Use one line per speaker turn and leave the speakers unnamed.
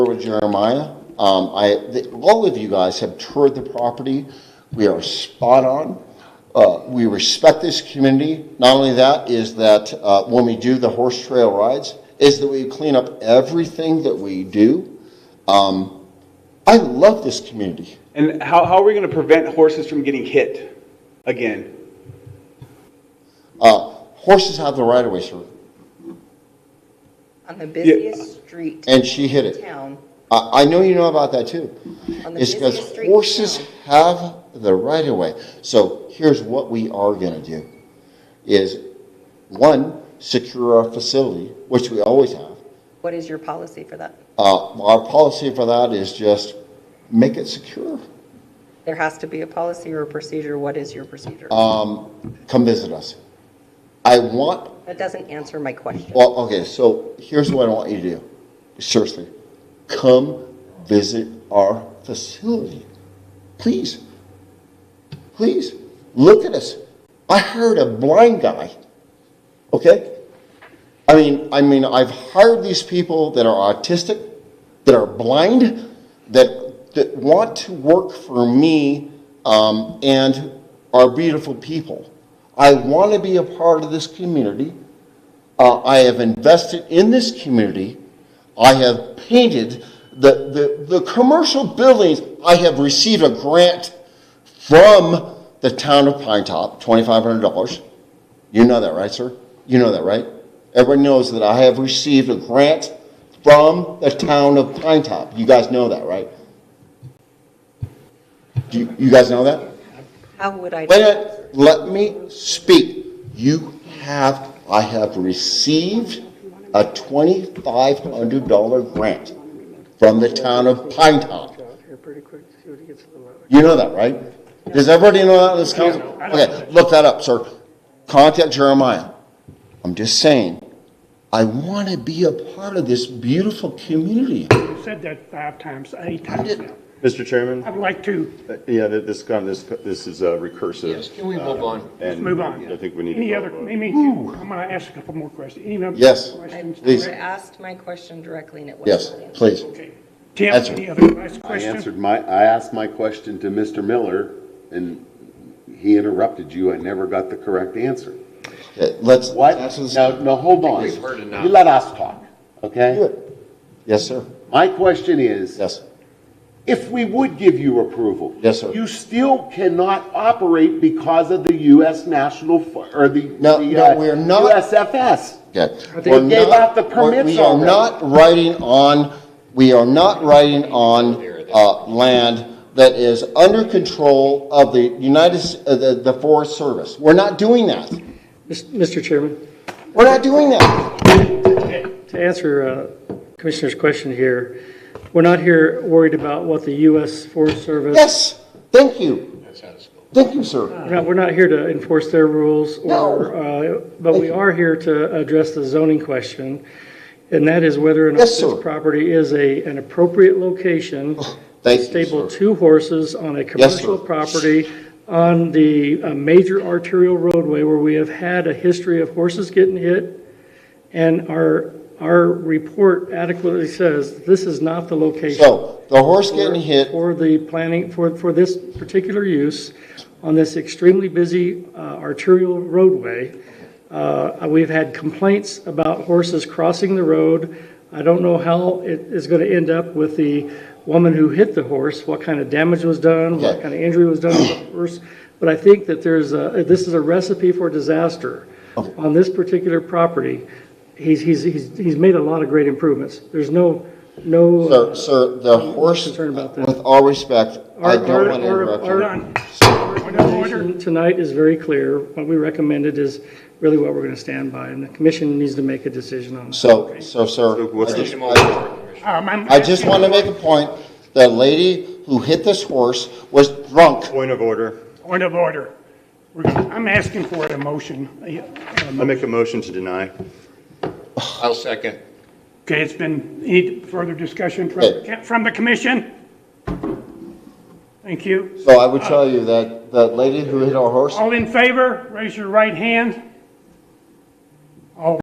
with Jeremiah. Um, I, the, all of you guys have toured the property. We are spot on. Uh, we respect this community. Not only that, is that uh, when we do the horse trail rides, is that we clean up everything that we do. Um, I love this community.
And how, how are we going to prevent horses from getting hit again?
Uh, horses have the right of way, sir,
On the busiest street
and she hit
in
it.
town,
I, I know you know about that too.
On the
It's because
busiest street in
horses
town.
have the right of way. So here's what we are gonna do, is, one, secure our facility, which we always have.
what is your policy for that?
Uh, our policy for that is just make it secure.
There has to be a policy or a procedure. What is your procedure?
Um, come visit us. I want,
That doesn't answer my question.
well, okay, so here's what I want you to do, seriously. Come visit our facility, please. Please, look at us. I hired a blind guy, okay? I mean, I mean, I've hired these people that are autistic, that are blind, that, that want to work for me um, and are beautiful people. I want to be a part of this community. Uh, I have invested in this community. I have painted the, the, the commercial buildings. I have received a grant from the town of Pine Top, $2,500. You know that, right, sir? You know that, right? Everyone knows that I have received a grant from the town of Pine Top. You guys know that, right? Do you, you guys know that?
How would I?
Wait a minute, let me speak. You have, I have received a $2,500 grant from the town of Pine Top.
out here pretty quick, see what he gets in the line.
You know that, right? Does everybody know that in this council? Okay, look that up, sir. Contact Jeremiah. I'm just saying, I want to be a part of this beautiful community.
You've said that five times, eight times now.
Mr. Chairman,
I'd like to,
uh, yeah, th- this, con- this, this is uh, recursive. Um,
Can we move on?
and
move on.
I think we need to.
any
go
other,
on.
maybe, I'm gonna ask a couple more questions. Any other
Yes,
questions?
please.
I asked my question directly and it was
Yes,
not answered.
please.
Okay. Tim,
Answer.
any other last
I
question?
answered my, I asked my question to Mr. Miller, and he interrupted you. I never got the correct answer.
Okay, Let's.
What?
answer this-
No, no, hold on.
we've heard enough.
You let us talk, okay?
Yes, sir.
My question is,
Yes.
if we would give you approval.
Yes, sir.
You still cannot operate because of the U.S. National, F- or the.
No,
the,
no,
uh,
we're not-
USFS.
Okay.
They
We're
gave
not-
out the permits
We are
already.
not writing on, we are not writing on, uh, land that is under control of the United, S- uh, the, the Forest Service. We're not doing that.
Mr. Chairman,
We're not doing that.
to answer uh, Commissioner's question here, we're not here worried about what the U.S. Forest Service.
Yes, thank you. Thank you, sir.
We're not- We're not here to enforce their rules or, uh, but we are here to address the zoning question. And that is whether or not
Yes,
this
sir. Oh.
property is a, an appropriate location.
Thank you,
Stable
sir.
two horses on a commercial property on the uh, major arterial roadway where we have had a history of horses getting hit. And our, our report adequately says this is not the location
So, the horse getting hit,
for the planning, for, for this particular use on this extremely busy uh, arterial roadway. Uh, We've had complaints about horses crossing the road. I don't know how it is going to end up with the woman who hit the horse, what kind of damage was done, what
Okay.
kind of injury was done to the horse. But I think that there's a, this is a recipe for disaster on this particular property. He's, he's, he's, he's made a lot of great improvements. There's no, no.
sir,
uh,
sir, the horse,
concerned about that.
with all respect, I
Our-
don't
our-
want to
our-
interrupt
our-
you.
Done.
recommendation Tonight is very clear. What we recommended is really what we're going to stand by, and the commission needs to make a decision on that.
So, so, sir,
what's
I
the-
just- I-
Um, I'm
I just
asking-
want to make a point. The lady who hit this horse was drunk.
Point of order.
Point of order. We're gonna- I'm asking for a motion. Um,
I make a motion to deny.
I'll second.
Okay, it's been, any further discussion
Okay.
from, from the commission? Thank you.
So I would tell you that the lady who hit our horse,
All in favor, raise your right hand.